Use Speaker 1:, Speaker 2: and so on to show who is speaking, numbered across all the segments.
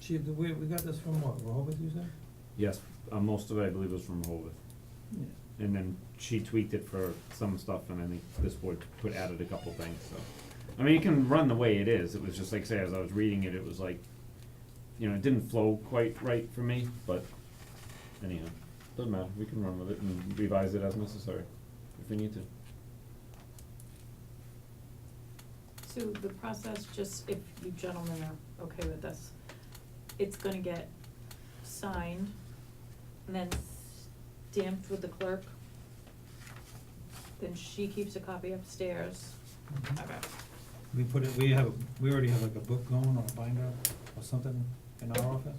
Speaker 1: Chief, did we, we got this from what, Rehoboth, you said?
Speaker 2: Yes, uh, most of it, I believe, was from Rehoboth.
Speaker 1: Yeah.
Speaker 2: And then she tweaked it for some stuff, and I think this board put added a couple things, so. I mean, it can run the way it is, it was just like, say, as I was reading it, it was like, you know, it didn't flow quite right for me, but anyhow, doesn't matter, we can run with it and revise it as necessary, if we need to.
Speaker 3: So the process, just if you gentlemen are okay with this, it's gonna get signed and then stamped with the clerk. Then she keeps a copy upstairs.
Speaker 1: Mhm.
Speaker 3: Okay.
Speaker 1: We put it, we have, we already have like a book going or a binder or something in our office,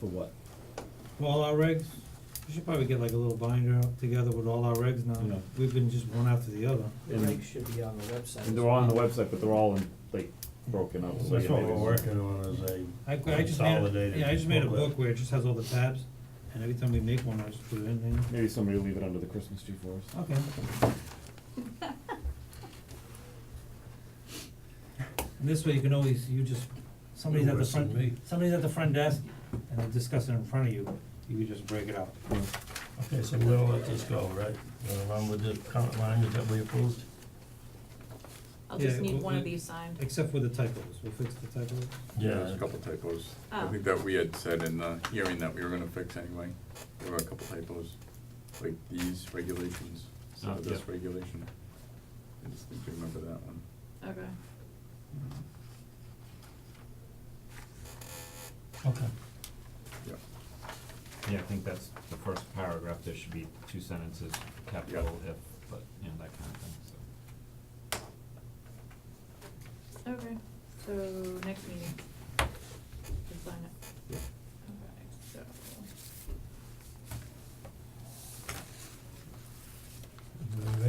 Speaker 2: For what?
Speaker 1: for all our regs. We should probably get like a little binder together with all our regs
Speaker 2: Yeah.
Speaker 1: now, we've been just one after the other.
Speaker 4: The
Speaker 2: And-
Speaker 4: regs should be on the website.
Speaker 2: And they're all on the website, but they're all in, like, broken up, so.
Speaker 5: That's
Speaker 2: yeah,
Speaker 5: what
Speaker 2: maybe
Speaker 5: we're
Speaker 2: it's-
Speaker 5: working on is a
Speaker 1: I, I just made, a-
Speaker 5: consolidated.
Speaker 1: yeah, I just made a book
Speaker 5: booklet.
Speaker 1: where it just has all the tabs, and every time we make one, I just put it in, and,
Speaker 2: Maybe somebody will leave it under the Christmas tree for us.
Speaker 1: okay. And this way you can always, you just, somebody's at the
Speaker 5: Worse than
Speaker 1: front,
Speaker 5: me.
Speaker 1: somebody's at the front desk, and they discuss it in front of you, you can just break it out.
Speaker 5: Okay, so we'll let this go, right? Uh, Along with the current language that we approved?
Speaker 3: I'll just
Speaker 1: Yeah,
Speaker 3: need
Speaker 1: well,
Speaker 3: one of
Speaker 1: we-
Speaker 3: these signed.
Speaker 1: Except for the typos, we'll fix the typos.
Speaker 6: There's a couple typos. I
Speaker 3: Oh.
Speaker 6: think that we had said in the hearing that we were gonna fix anyway. There were a couple typos, like these regulations, so
Speaker 1: Oh,
Speaker 2: Ah,
Speaker 6: this
Speaker 2: yeah.
Speaker 6: regulation. I just need to remember that one.
Speaker 3: Okay.
Speaker 5: Okay.
Speaker 6: Yeah,
Speaker 2: Yeah, I think that's the first paragraph, there should be two sentences, capital if, but, you know, that kind of thing, so.
Speaker 3: Okay, so next meeting. Just sign it.
Speaker 2: Yeah.
Speaker 3: Alright, so.
Speaker 5: Everybody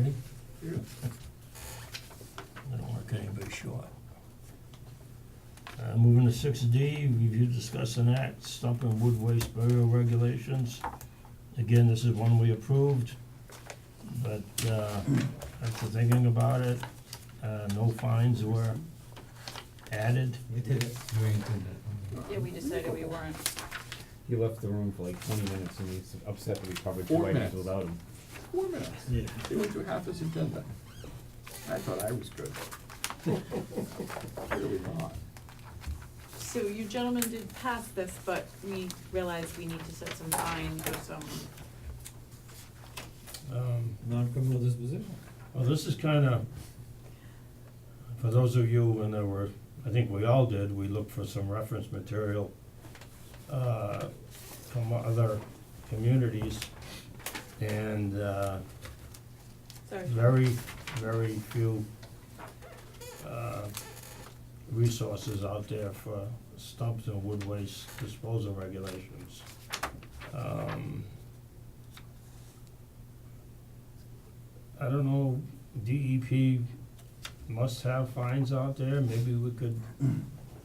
Speaker 5: ready? I don't work anybody short. Uh, moving to six D, review, discuss, and act, stump and wood waste burial regulations. Again, this is one we approved, but, uh, after thinking about it, uh, no fines were added.
Speaker 1: We did it. We did that.
Speaker 3: Yeah, we decided we weren't.
Speaker 2: He left the room for like twenty minutes and he's upset that we covered
Speaker 6: Four
Speaker 2: two items
Speaker 6: minutes.
Speaker 2: without him.
Speaker 6: Four minutes. They went through half this agenda. I thought I was good. Clearly not.
Speaker 3: So you gentlemen did pass this, but we realized we need to set some fines or some,
Speaker 5: Um,
Speaker 1: Non-criminal disposition.
Speaker 5: Well, this is kinda, for those of you, when there were, I think we all did, we looked for some reference material uh, from other communities, and uh,
Speaker 3: sorry.
Speaker 5: very, very few uh, resources out there for stumps and wood waste disposal regulations. Um, I don't know, DEP must have fines out there, maybe we could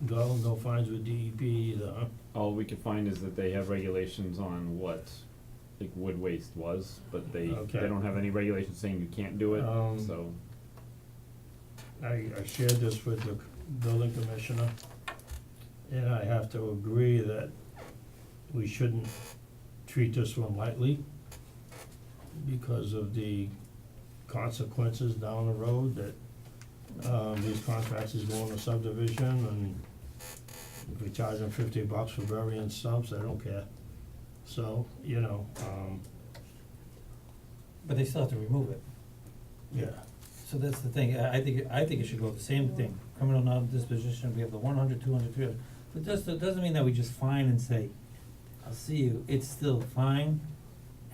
Speaker 5: go, no fines with DEP either, huh?
Speaker 2: All we could find is that they have regulations on what, like wood waste was, but they,
Speaker 5: Okay.
Speaker 2: they don't have any regulations saying you can't do it,
Speaker 5: Um,
Speaker 2: so.
Speaker 5: I, I shared this with the building commissioner, and I have to agree that we shouldn't treat this one lightly because of the consequences down the road that, um, these contractors go into subdivision and if we charge them fifty bucks for burying stumps, I don't care. So, you know, um,
Speaker 1: But they still have to remove it.
Speaker 5: yeah.
Speaker 1: So that's the thing, I, I think, I think it should go the same thing, criminal non-disposition, we have the 100, 200, 300. But just, it doesn't mean that we just fine and say, I'll see you, it's still fine,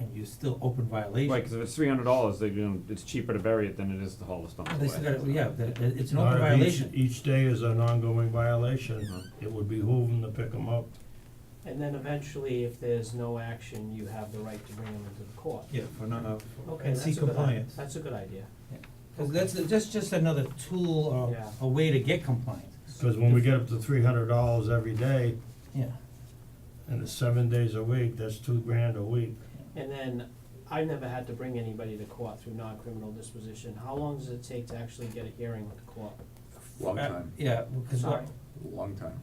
Speaker 1: and you're still open violation.
Speaker 2: Right, cause if it's three hundred dollars, they, you know, it's cheaper to bury it than it is to haul the stump
Speaker 1: But They still
Speaker 2: away.
Speaker 1: gotta, yeah, that- that- it's an
Speaker 5: Not e-,
Speaker 1: open
Speaker 5: if
Speaker 1: violation.
Speaker 5: Each, each day is an ongoing violation,
Speaker 2: Mhm.
Speaker 5: it would behoove them to pick them up.
Speaker 4: And then eventually, if there's no action, you have the right to bring them into the court.
Speaker 1: Yeah, for not, uh,
Speaker 4: Okay,
Speaker 1: and
Speaker 4: that's a
Speaker 1: seek
Speaker 4: good, i-
Speaker 1: compliance.
Speaker 4: that's a good idea.
Speaker 1: Cause that's, that's just another tool or
Speaker 4: Yeah.
Speaker 1: a way to get compliance,
Speaker 5: Cause when we get up to three hundred dollars every day,
Speaker 1: yeah.
Speaker 5: and it's seven days a week, that's two grand a week.
Speaker 4: And then, I never had to bring anybody to court through non-criminal disposition. How long does it take to actually get a hearing with the court?
Speaker 6: Long
Speaker 1: Uh,
Speaker 6: time,
Speaker 1: Yeah, because
Speaker 4: Sorry.
Speaker 1: what,
Speaker 6: long time.